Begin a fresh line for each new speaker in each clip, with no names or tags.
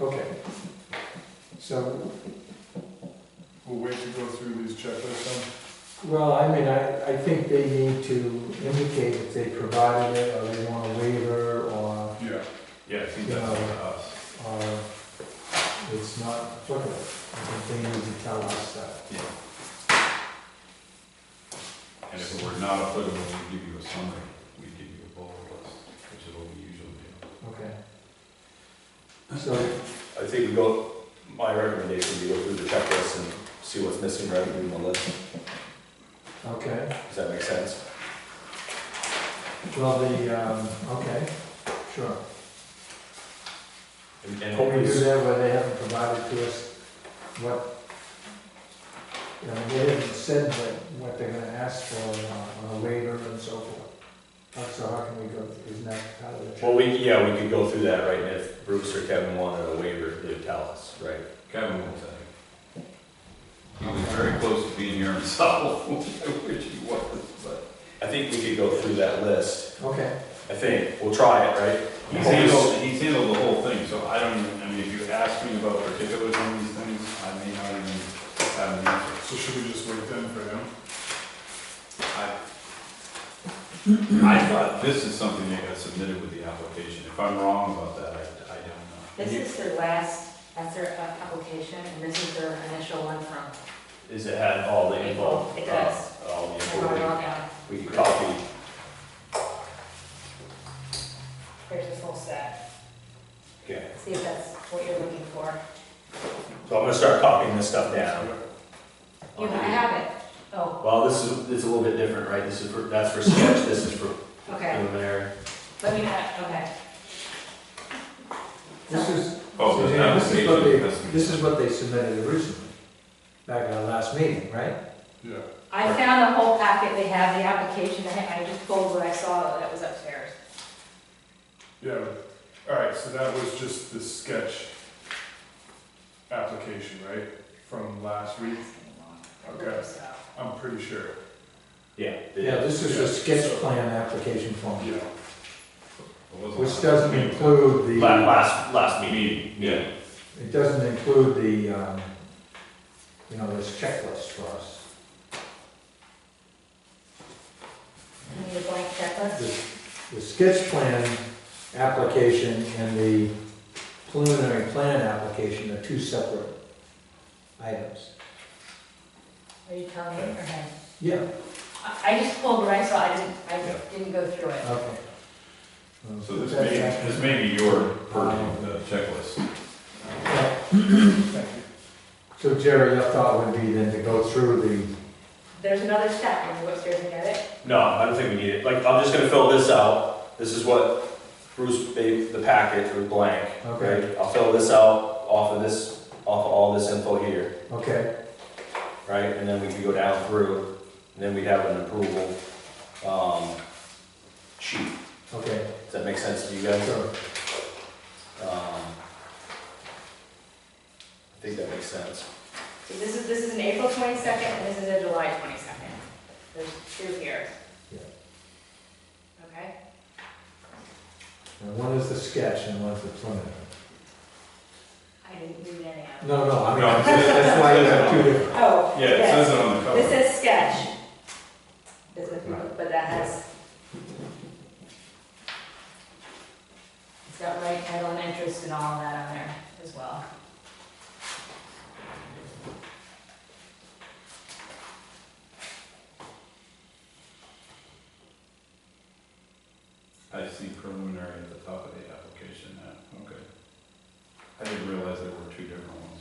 Okay. So,
We'll wait to go through these checklists
well, I mean, I, I think they need to indicate if they provided it, or they want a waiver, or,
then? Yeah.
Yeah, I think that's
Yeah.
for us.
or it's not applicable. I think they need to tell us that.
Yeah. And if it were not applicable, we'd give you a summary, we'd give you a bullet list, which is what we usually do.
Okay. So,
I think we go, my recommendation would be go through the checklist and see what's missing rather than the list.
okay,
Does that make sense?
well, the, um, okay, sure.
And and
Can we
hopefully,
do that where they haven't provided to us what, you know, they haven't said what, what they're gonna ask for on a- on a waiver and so forth? How- So how can we go, isn't that how the?
well, we, yeah, we could go through that, right, and if Bruce or Kevin wanted a waiver, they'd tell us, right?
Kevin will tell you. He was very close to being here himself, I wish he was, but.
I think we could go through that list,
Okay,
I think, we'll try it, right?
He's handled, he's handled the whole thing, so I don't, even- I mean, if you ask me about particulars on these things, I may not even have an answer.
So should we just wait then for him?
I I thought this is something that got submitted with the application. If I'm wrong about that, I, I don't
This
know.
is their last, that's their uh, application, and this is their initial one from
Is it had all the info?
April. It does.
Uh, All the
Royal
info,
County.
we we could copy,
Here's this whole set.
okay,
See if that's what you're looking for.
so I'm gonna start copying this stuff down.
You I have it. Oh,
Well, this is, it's a little bit different, right, this is for, that's for sketch, this is for
okay.
preliminary.
Let me know. Okay.
this is,
Oh, the
Suzanne, this is what
application has to
they,
be-
this is what they submitted originally, back at our last meeting, right?
Yeah.
I found the whole packet. They have the application. I I just pulled what I saw that was upstairs.
Yeah. All right, so that was just the sketch application, right? From last week, Okay.
So,
I'm pretty sure.
Yeah.
Yeah, this is a
Yeah,
sketch
so-
plan application form,
Yeah.
It wasn't-
which doesn't include
La-
the,
Last, last meeting.
Meeting, yeah.
it doesn't include the, um, you know, this checklist for us.
you Need a blank checklist?
the the sketch plan application and the preliminary plan application are two separate items.
Are you telling me or him?
Yeah,
I- I just pulled what I saw. I didn't, I didn't go through it.
okay. Um,
So this may, this may be your purview, the checklist.
So Jerry, your thought would be then to go through the,
There's another step when you go upstairs and get it.
No, I don't think we need it. Like, I'm just gonna fill this out. This is what Bruce made, the packet was blank.
Okay.
right? I'll fill this out off of this, off of all this info here,
okay,
right? And then we can go down through, and then we'd have an approval, um, sheet.
okay,
Does that make sense to you guys?
so,
Um, I think that makes sense.
So this is, this is an April twenty-second, and this is a July twenty-second. There's two here.
Yeah.
Okay,
and one is the sketch and one's the preliminary.
I didn't read any of them.
No, no, I mean,
No, it says-
that's why you have two different,
Oh,
Yeah, it
yes,
says it on the
this
cover.
says sketch. This is, but that has. It's got right title and interest and all of that on there as well.
I see preliminary at the top of the application now, okay. I didn't realize there were two different ones.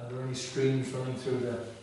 are there any streams running through the